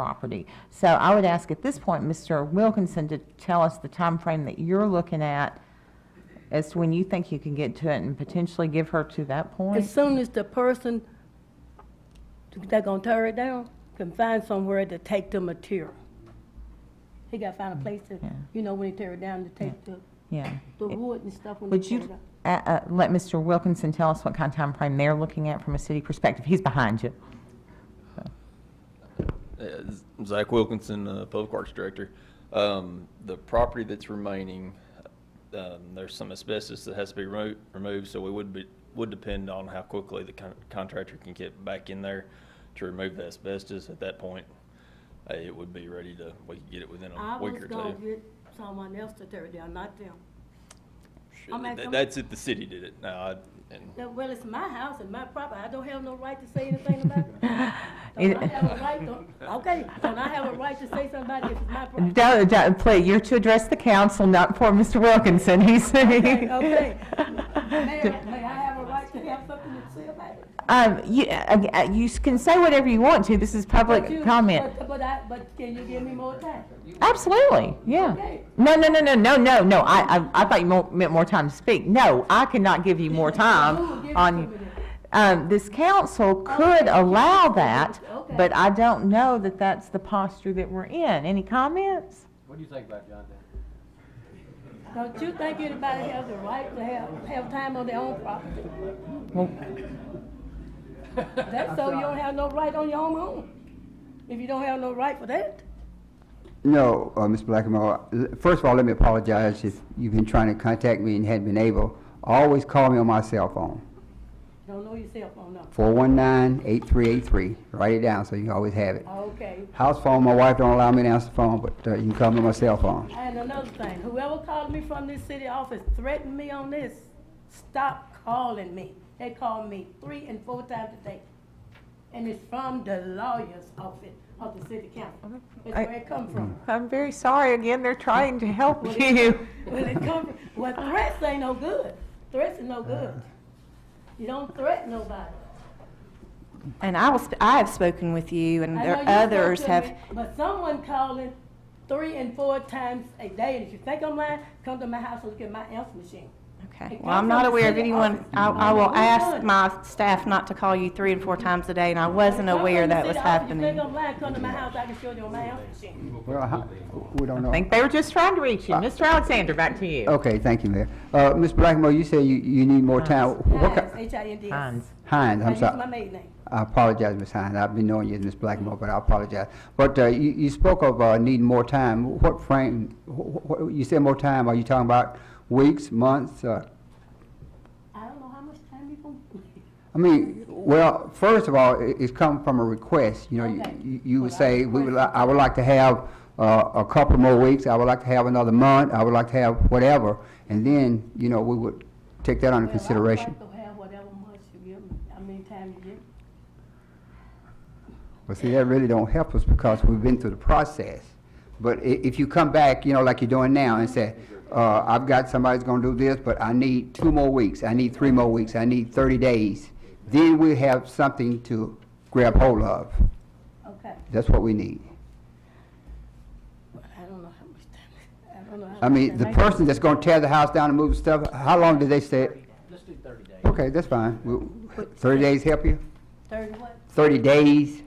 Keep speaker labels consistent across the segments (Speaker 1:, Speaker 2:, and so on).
Speaker 1: property. So I would ask at this point, Mr. Wilkinson, to tell us the time frame that you're looking at as to when you think you can get to it and potentially give her to that
Speaker 2: As
Speaker 1: point.
Speaker 2: soon as the person that gonna tear it down can find somewhere to take the material. He gotta find a place to,
Speaker 1: Mm, Yeah.
Speaker 2: you know, when he tear it down, to take the,
Speaker 1: Yeah.
Speaker 2: the wood and stuff when he
Speaker 1: Would
Speaker 2: tear it
Speaker 1: you
Speaker 2: up.
Speaker 1: uh, uh, let Mr. Wilkinson tell us what kind of time frame they're looking at from a city perspective? He's behind you.
Speaker 3: Uh, Z- Zach Wilkinson, uh, Public Works Director. Um, The property that's remaining, um, there's some asbestos that has to be remo- removed, so we would be, would depend on how quickly the con- contractor can get back in there to remove the asbestos. At that point, uh, it would be ready to, we could get it within
Speaker 2: I
Speaker 3: a
Speaker 2: was
Speaker 3: week or
Speaker 2: gonna
Speaker 3: two.
Speaker 2: get someone else to tear it down, not them.
Speaker 3: Sure,
Speaker 2: I'm
Speaker 3: th-
Speaker 2: actually-
Speaker 3: That's if the city did it. Now, I, and
Speaker 2: Now, Well, it's my house and my property, I don't have no right to say anything about it.
Speaker 1: It-
Speaker 2: Don't I have a right, to- okay, don't I have a right to say somebody if it's my property?
Speaker 1: Don't, don't, please, you're to address the council, not for Mr. Wilkinson, he's.
Speaker 2: Okay, okay. Mayor, may I have a right to have something to say about it?
Speaker 1: Um, you, uh, uh, you s- can say whatever you want to, this is
Speaker 2: But you-
Speaker 1: public comment.
Speaker 2: But, but I, but can you give me more time?
Speaker 1: Absolutely, yeah.
Speaker 2: Okay.
Speaker 1: No, no, no, no, no, no, no, I, I, I thought you mo- meant more time to speak. No, I cannot give you more
Speaker 2: Who will give
Speaker 1: time
Speaker 2: it to me
Speaker 1: on,
Speaker 2: then?
Speaker 1: um, this council could allow that,
Speaker 2: Okay.
Speaker 1: but I don't know that that's the posture that we're in. Any comments?
Speaker 4: What do you think about John Dan?
Speaker 2: Don't you think anybody has the right to have, have time on their own property?
Speaker 1: Well,
Speaker 2: That's so you don't have no right on your own home, if you don't have no right for that.
Speaker 5: No, uh, Mr. Blackamore, l- first of all, let me apologize if you've been trying to contact me and hadn't been able. Always call me on my cell phone,
Speaker 2: Don't know your cell phone number.
Speaker 5: 419-8383. Write it down so you can always have it.
Speaker 2: Okay,
Speaker 5: House phone, my wife don't allow me to answer the phone, but uh, you can call me on my cell phone.
Speaker 2: and another thing, whoever called me from this city office threatened me on this, stop calling me. They called me three and four times a day. And it's from the lawyer's office of the city council. That's where it come from.
Speaker 1: I'm very sorry, again, they're trying to help you.
Speaker 2: Well, it come, from- well, threats ain't no good. Threats are
Speaker 5: Uh.
Speaker 2: no good. You don't threaten nobody.
Speaker 6: And I will, sp- I have spoken with you and
Speaker 2: I
Speaker 6: there
Speaker 2: know you spoke
Speaker 6: others
Speaker 2: to
Speaker 6: have,
Speaker 2: me, But someone calling three and four times a day, and if you think I'm lying, come to my house and look at my answer machine.
Speaker 6: okay.
Speaker 2: It
Speaker 6: Well, I'm
Speaker 2: comes from
Speaker 6: not
Speaker 2: the
Speaker 6: aware of
Speaker 2: city
Speaker 6: anyone,
Speaker 2: office.
Speaker 6: I,
Speaker 2: I
Speaker 6: I
Speaker 2: know
Speaker 6: will
Speaker 2: you
Speaker 6: ask
Speaker 2: would.
Speaker 6: my staff not to call you three and four times a day and I wasn't aware that was
Speaker 2: If "Oh, you
Speaker 6: happening.
Speaker 2: think I'm lying, come to my house, I can show you on my answer machine.
Speaker 5: Well, how- we don't know.
Speaker 1: I think they were just trying to reach you.
Speaker 2: Uh,
Speaker 1: Mr. Alexander, back to you.
Speaker 5: Okay, thank you, Mayor. Uh, Mr. Blackamore, you said you, you need more time. What
Speaker 2: Hinds,
Speaker 5: ki-
Speaker 2: H-I-N-D-S.
Speaker 1: Hans.
Speaker 5: Hines,
Speaker 2: I
Speaker 5: I'm
Speaker 2: use
Speaker 5: sorry.
Speaker 2: my maiden name.
Speaker 5: I apologize, Ms. Hines. I've been knowing you as Ms. Blackmore, but I apologize. But uh, you, you spoke of uh, needing more time. What frame, wh- wh- wh- you said more time, are you talking about weeks, months? uh,
Speaker 2: I don't know how much time you gonna.
Speaker 5: I mean, well, first of all, it- it's come from a request. You know, you-
Speaker 2: Okay.
Speaker 5: you- you would
Speaker 2: Well, I
Speaker 5: say, we would, li-
Speaker 2: requested
Speaker 5: I would like to have uh, a couple more weeks, I would like to have another month, I would like to have whatever. And then, you know, we would take that under consideration.
Speaker 2: Well, I would like to have whatever much you give me, how many time you give me.
Speaker 5: Well, see, that really don't help us because we've been through the process. But i- if you come back, you know, like you're doing now and say, uh, I've got somebody's gonna do this, but I need two more weeks, I need three more weeks, I need thirty days, then we have something to grab hold of.
Speaker 2: Okay,
Speaker 5: That's what we need.
Speaker 2: Well, I don't know how much time, I don't know how much.
Speaker 5: I mean, the
Speaker 2: time
Speaker 5: person that's gonna tear the house down and move stuff, how long did they stay?
Speaker 4: Let's do thirty days.
Speaker 5: Okay, that's fine. We- Thirty days help you?
Speaker 2: Thirty what?
Speaker 5: Thirty days?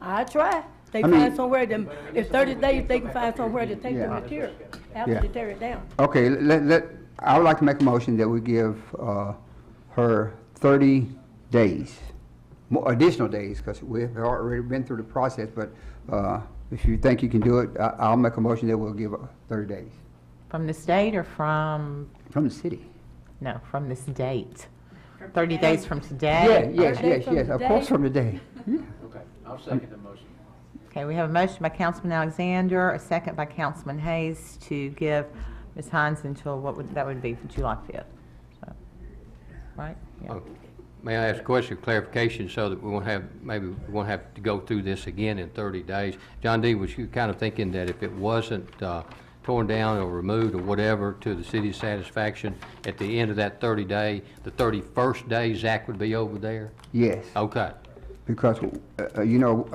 Speaker 2: I try. They
Speaker 5: I mean-
Speaker 2: find somewhere to, if thirty days, they can find somewhere to take the
Speaker 5: Yeah.
Speaker 2: material after
Speaker 5: Yeah.
Speaker 2: they tear it down.
Speaker 5: Okay, let, let, I would like to make a motion that we give, uh, her thirty days, mo- additional days, because we've already been through the process, but, uh, if you think you can do it, I, I'll make a motion that we'll give her thirty days
Speaker 1: From the state or from,
Speaker 5: from the city.
Speaker 1: no, from this date? 30 days from
Speaker 5: Yeah,
Speaker 1: today?
Speaker 5: yes,
Speaker 2: Thirty days
Speaker 5: yes,
Speaker 2: from
Speaker 5: yes, of course
Speaker 2: today?
Speaker 5: from today. Yeah.
Speaker 4: Okay, I'll second the motion.
Speaker 1: Okay, we have a motion by Councilman Alexander, a second by Councilman Hayes to give Ms. Hines until, what would, that would be for July 5th. So, Right? Yeah.
Speaker 7: Uh, May I ask a question of clarification so that we won't have, maybe we won't have to go through this again in 30 days? John D., was you kind of thinking that if it wasn't uh, torn down or removed or whatever to the city's satisfaction, at the end of that 30 day, the 31st day, Zach would be over there?
Speaker 5: Yes,
Speaker 7: Okay.
Speaker 5: because, uh, uh, you know,